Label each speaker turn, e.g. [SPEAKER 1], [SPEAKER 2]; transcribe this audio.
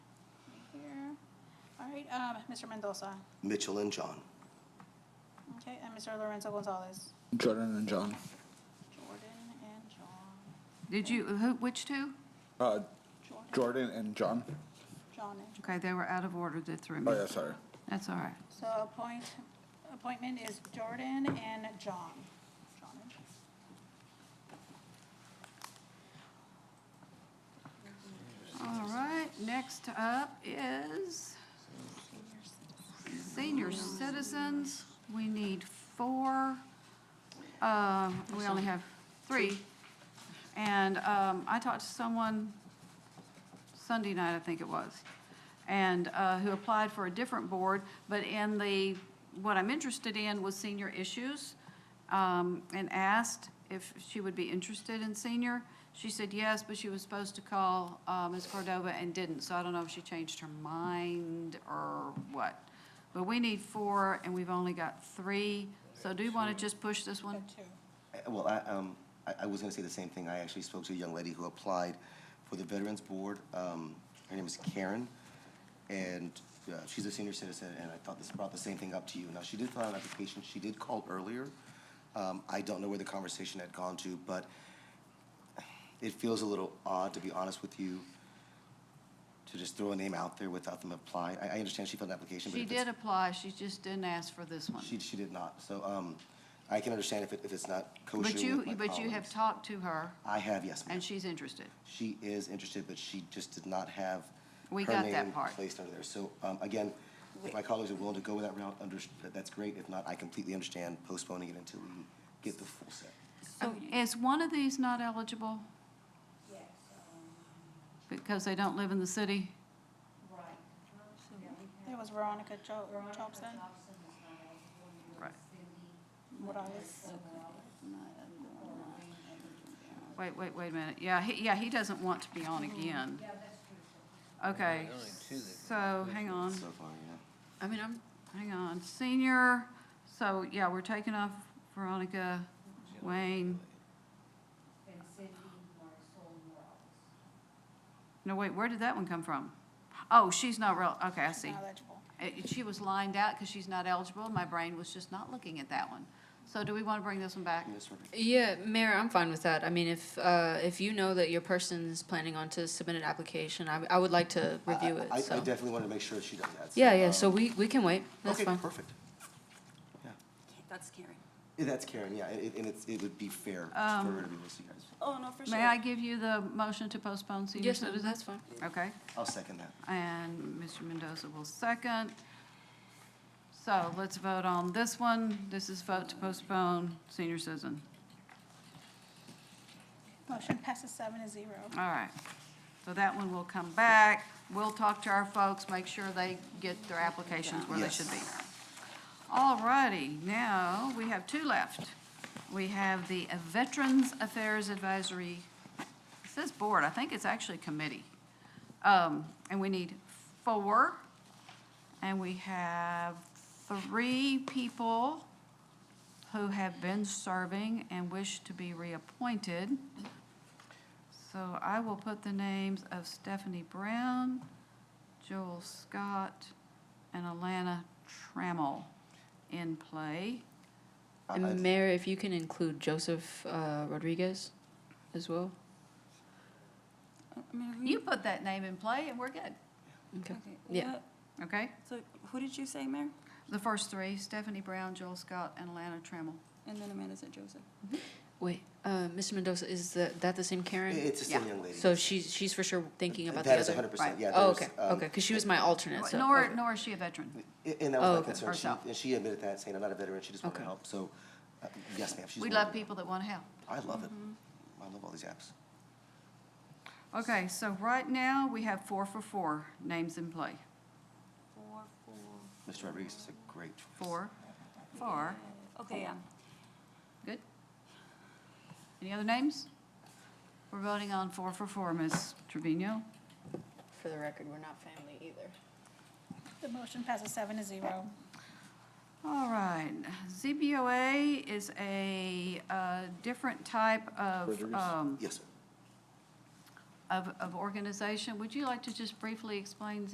[SPEAKER 1] right, um, Mr. Mendoza,
[SPEAKER 2] Mitchell and John.
[SPEAKER 1] okay, and Mr. Lorenzo Gonzalez,
[SPEAKER 3] Jordan and John.
[SPEAKER 1] Jordan and John,
[SPEAKER 4] Did you, who, which two?
[SPEAKER 3] Uh,
[SPEAKER 1] Jordan,
[SPEAKER 3] Jordan and John.
[SPEAKER 1] John and
[SPEAKER 4] Okay, they were out of order that threw me.
[SPEAKER 3] Oh, yeah, sorry.
[SPEAKER 4] That's all right.
[SPEAKER 1] So appoint, appointment is Jordan and John. John and John.
[SPEAKER 4] All right, next up is senior citizens. We need four. Uh, We only have three. And um, I talked to someone Sunday night, I think it was, and uh, who applied for a different board, but in the, what I'm interested in was senior issues, um, and asked if she would be interested in senior. She said yes, but she was supposed to call uh, Ms. Cordova and didn't, so I don't know if she changed her mind or what. But we need four, and we've only got three, so do you want to just push this one?
[SPEAKER 1] Two.
[SPEAKER 2] Uh, Well, I, um, I, I was gonna say the same thing. I actually spoke to a young lady who applied for the Veterans Board. Um, her name is Karen, and, uh, she's a senior citizen, and I thought this brought the same thing up to you. Now, she did file an application. She did call earlier. Um, I don't know where the conversation had gone to, but it feels a little odd, to be honest with you, to just throw a name out there without them applying. I, I understand she filed an application, but
[SPEAKER 4] She
[SPEAKER 2] if it's-
[SPEAKER 4] did apply, she just didn't ask for this one.
[SPEAKER 2] She, she did not. So, um, I can understand if it, if it's not kosher
[SPEAKER 4] But you,
[SPEAKER 2] with my
[SPEAKER 4] but you have
[SPEAKER 2] colleagues.
[SPEAKER 4] talked to her,
[SPEAKER 2] I have, yes, ma'am.
[SPEAKER 4] and she's interested.
[SPEAKER 2] She is interested, but she just did not have
[SPEAKER 4] We
[SPEAKER 2] her
[SPEAKER 4] got that
[SPEAKER 2] name
[SPEAKER 4] part.
[SPEAKER 2] placed under there. So, um, again, if my colleagues are willing to go with that route, under, that- that's great. If not, I completely understand postponing it until we get the full set.
[SPEAKER 4] So is one of these not eligible? um, Yes. Because they don't live in the city?
[SPEAKER 1] It was Veronica Jo- Jobson.
[SPEAKER 4] Right.
[SPEAKER 1] Morales.
[SPEAKER 4] Wait, wait, wait a minute. Yeah, he, yeah, he doesn't want to be on again. Okay, so, hang on.
[SPEAKER 2] So far, yeah.
[SPEAKER 4] I mean, I'm, hang on, senior, so, yeah, we're taking off Veronica, Wayne. No, wait, where did that one come from? Oh, she's not real, okay, I see.
[SPEAKER 1] Not eligible.
[SPEAKER 4] It- She was lined out because she's not eligible. My brain was just not looking at that one. So do we want to bring this one back?
[SPEAKER 2] Yes, Rebecca.
[SPEAKER 5] Yeah, Mayor, I'm fine with that. I mean, if, uh, if you know that your person's planning on to submit an application, I, I would like to review
[SPEAKER 2] I- I-
[SPEAKER 5] it,
[SPEAKER 2] I
[SPEAKER 5] so.
[SPEAKER 2] definitely want to make sure she does that.
[SPEAKER 5] Yeah, yeah,
[SPEAKER 2] um,
[SPEAKER 5] so we, we can wait. That's
[SPEAKER 2] okay,
[SPEAKER 5] fine.
[SPEAKER 2] perfect. Yeah,
[SPEAKER 6] That's scary.
[SPEAKER 2] Yeah, that's Karen, yeah, and, and it's, it would be fair for
[SPEAKER 4] Um,
[SPEAKER 2] her to be with you guys.
[SPEAKER 6] Oh, no, for sure.
[SPEAKER 4] May I give you the motion to postpone senior
[SPEAKER 5] Yes, ma'am,
[SPEAKER 4] citizen?
[SPEAKER 5] that's fine.
[SPEAKER 4] Okay,
[SPEAKER 2] I'll second that.
[SPEAKER 4] and Mr. Mendoza will second. So let's vote on this one. This is vote to postpone senior citizen.
[SPEAKER 1] Motion passes seven to zero.
[SPEAKER 4] All right. So that one will come back. We'll talk to our folks, make sure they get their applications where they should be. All righty, now we have two left. We have the Veterans Affairs Advisory, it says board, I think it's actually committee. Um, and we need four. And we have three people who have been serving and wish to be reappointed. So I will put the names of Stephanie Brown, Joel Scott, and Alana Trammell in play.
[SPEAKER 2] I- I-
[SPEAKER 5] And Mayor, if you can include Joseph, uh, Rodriguez as well.
[SPEAKER 6] I mean, who-
[SPEAKER 4] You put that name in play and we're good,
[SPEAKER 5] Okay.
[SPEAKER 6] okay,
[SPEAKER 5] Yeah.
[SPEAKER 6] what-
[SPEAKER 4] okay?
[SPEAKER 6] So who did you say, Mayor?
[SPEAKER 4] The first three, Stephanie Brown, Joel Scott, and Alana Trammell.
[SPEAKER 6] And then Amanda said Joseph.
[SPEAKER 5] Wait, uh, Mr. Mendoza, is that, that the same
[SPEAKER 2] it-
[SPEAKER 5] Karen?
[SPEAKER 2] It's the same
[SPEAKER 4] Yeah.
[SPEAKER 2] young lady.
[SPEAKER 5] So she's, she's for sure thinking about the
[SPEAKER 2] That is
[SPEAKER 5] other?
[SPEAKER 2] hundred percent,
[SPEAKER 4] Right.
[SPEAKER 2] yeah.
[SPEAKER 5] Oh,
[SPEAKER 2] there's,
[SPEAKER 5] okay,
[SPEAKER 2] um,
[SPEAKER 5] okay, because she was my alternate, so.
[SPEAKER 4] Nor,
[SPEAKER 5] okay.
[SPEAKER 4] nor is she a veteran.
[SPEAKER 2] A- And that was
[SPEAKER 5] Oh,
[SPEAKER 2] my
[SPEAKER 5] okay.
[SPEAKER 2] concern. She,
[SPEAKER 4] Herself.
[SPEAKER 2] and she admitted that, saying, I'm not a veteran, she just wanted to
[SPEAKER 5] Okay.
[SPEAKER 2] help. So, uh, yes, ma'am, she's.
[SPEAKER 4] We
[SPEAKER 2] one
[SPEAKER 4] love
[SPEAKER 2] of them.
[SPEAKER 4] people that want to help.
[SPEAKER 2] I love it.
[SPEAKER 5] Mm-hmm.
[SPEAKER 2] I love all these apps.
[SPEAKER 4] Okay, so right now, we have four for four names in play.
[SPEAKER 6] Four, four.
[SPEAKER 2] Mr. Rodriguez is a great choice.
[SPEAKER 4] Four, four,
[SPEAKER 6] Okay, yeah.
[SPEAKER 4] good? Any other names? We're voting on four for four, Ms. Trevino.
[SPEAKER 5] For the record, we're not family either.
[SPEAKER 1] The motion passes seven to zero.
[SPEAKER 4] All right, ZBOA is a uh, different type of,
[SPEAKER 3] Rodriguez?
[SPEAKER 4] um,
[SPEAKER 2] Yes, sir.
[SPEAKER 4] of of organization. Would you like to just briefly explain